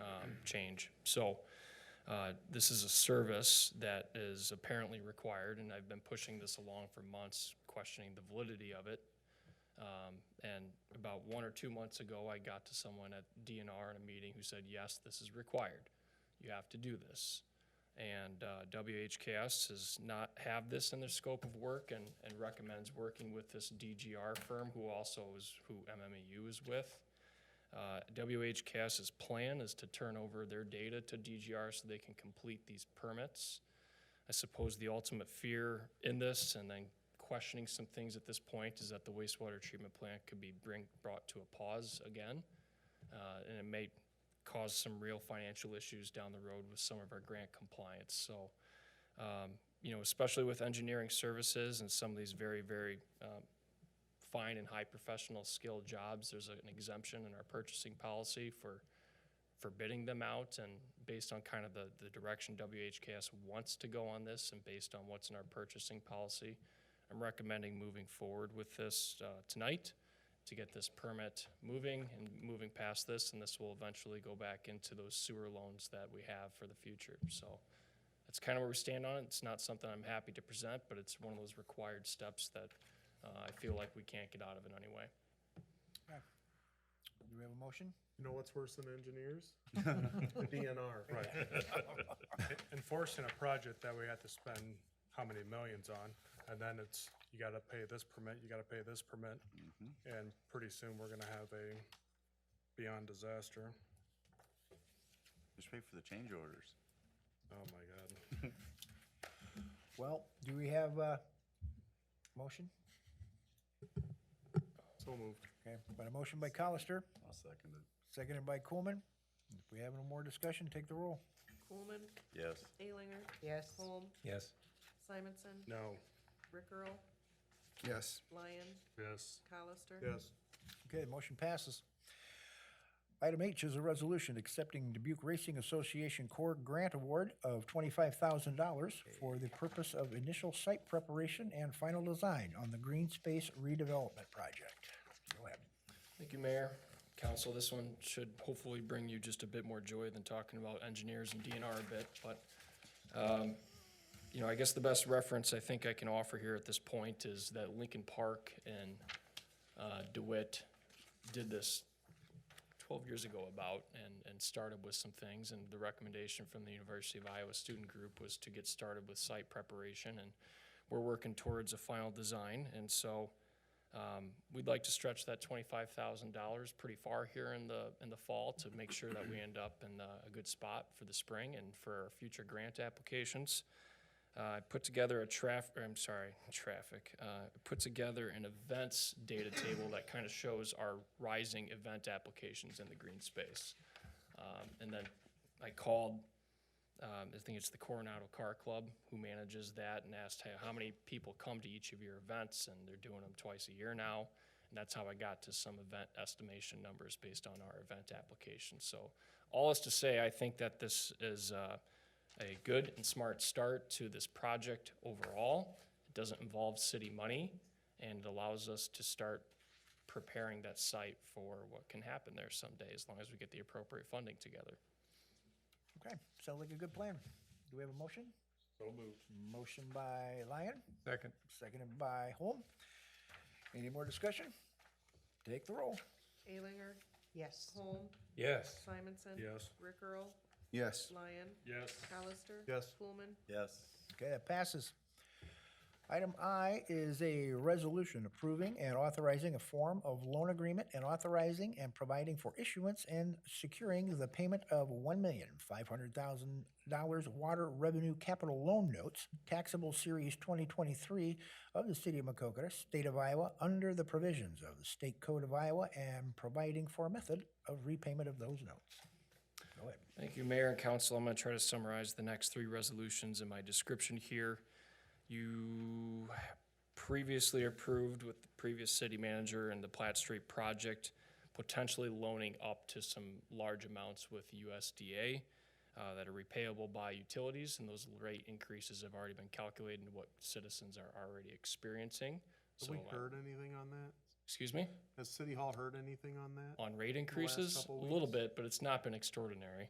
um, change. So uh, this is a service that is apparently required, and I've been pushing this along for months, questioning the validity of it. Um, And about one or two months ago, I got to someone at DNR in a meeting who said, yes, this is required. You have to do this. And uh, WHKS does not have this in their scope of work and, and recommends working with this DGR firm who also is, who MMEU is with. Uh, WHCAS's plan is to turn over their data to DGR so they can complete these permits. I suppose the ultimate fear in this, and then questioning some things at this point, is that the wastewater treatment plant could be bring, brought to a pause again. Uh, and it may cause some real financial issues down the road with some of our grant compliance, so. Um, you know, especially with engineering services and some of these very, very, um, fine and high professional skill jobs, there's an exemption in our purchasing policy for, for bidding them out. And based on kind of the, the direction WHKS wants to go on this and based on what's in our purchasing policy, I'm recommending moving forward with this uh, tonight to get this permit moving and moving past this. And this will eventually go back into those sewer loans that we have for the future. So that's kind of where we stand on it. It's not something I'm happy to present, but it's one of those required steps that uh, I feel like we can't get out of in any way. Do we have a motion? You know what's worse than engineers? The DNR. Right. enforcing a project that we had to spend how many millions on, and then it's, you gotta pay this permit, you gotta pay this permit, and pretty soon we're gonna have a beyond disaster. Just wait for the change orders. Oh my god. Well, do we have a motion? So moved. Okay, but a motion by Colister, I'll second it. seconded by Coolman. If we have no more discussion, take the roll. Coolman, Yes. Alinger, Yes. Holm, Yes. Simonson, No, Rick Earl, Yes. Lyon, yes, Colister. Yes. Okay, motion passes. Item H is a resolution accepting Dubuque Racing Association Corps Grant Award of twenty-five thousand dollars for the purpose of initial site preparation and final design on the green space redevelopment project. Go ahead. Thank you, Mayor. Council, this one should hopefully bring you just a bit more joy than talking about engineers and DNR a bit, but, um, you know, I guess the best reference I think I can offer here at this point is that Lincoln Park and uh, DeWitt did this 12 years ago about and, and started with some things. And the recommendation from the University of Iowa Student Group was to get started with site preparation. And we're working towards a final design. And so um, we'd like to stretch that twenty-five thousand dollars pretty far here in the, in the fall to make sure that we end up in uh, a good spot for the spring and for our future grant applications. Uh, I put together a traffic, I'm sorry, traffic, uh, I put together an events data table that kind of shows our rising event applications in the green space. Um, and then I called um, I think it's the Coronado Car Club who manages that and asked "Hey, how many people come to each of your events, and they're doing them twice a year now. And that's how I got to some event estimation numbers based on our event application. So, all is to say, I think that this is uh, a good and smart start to this project overall. It doesn't involve city money, and it allows us to start preparing that site for what can happen there someday, as long as we get the appropriate funding together. Okay, sounds like a good plan. Do we have a motion? so moved. Motion by Lyon. Second. Seconded by Holm. Any more discussion? Take the roll. Alinger, Yes. Holm, Yes. Simonson. Yes. Rick Earl, Yes. Lyon, Yes. Colister. Yes. Coolman, Yes. Okay, that passes. Item I is a resolution approving and authorizing a form of loan agreement and authorizing and providing for issuance and securing the payment of one million five hundred thousand dollars water revenue capital loan notes taxable series twenty twenty-three of the city of Macokota, state of Iowa, under the provisions of the state code of Iowa and providing for a method of repayment of those notes. Go ahead. Thank you, Mayor and Council. I'm going to try to summarize the next three resolutions in my description here. You previously approved with the previous city manager and the Platt Street project, potentially loaning up to some large amounts with USDA uh, that are repayable by utilities, and those rate increases have already been calculated into what citizens are already experiencing. Have So, we I- heard anything on that? Excuse me? Has City Hall heard anything on that? On rate increases? A couple little weeks. bit, but it's not been extraordinary.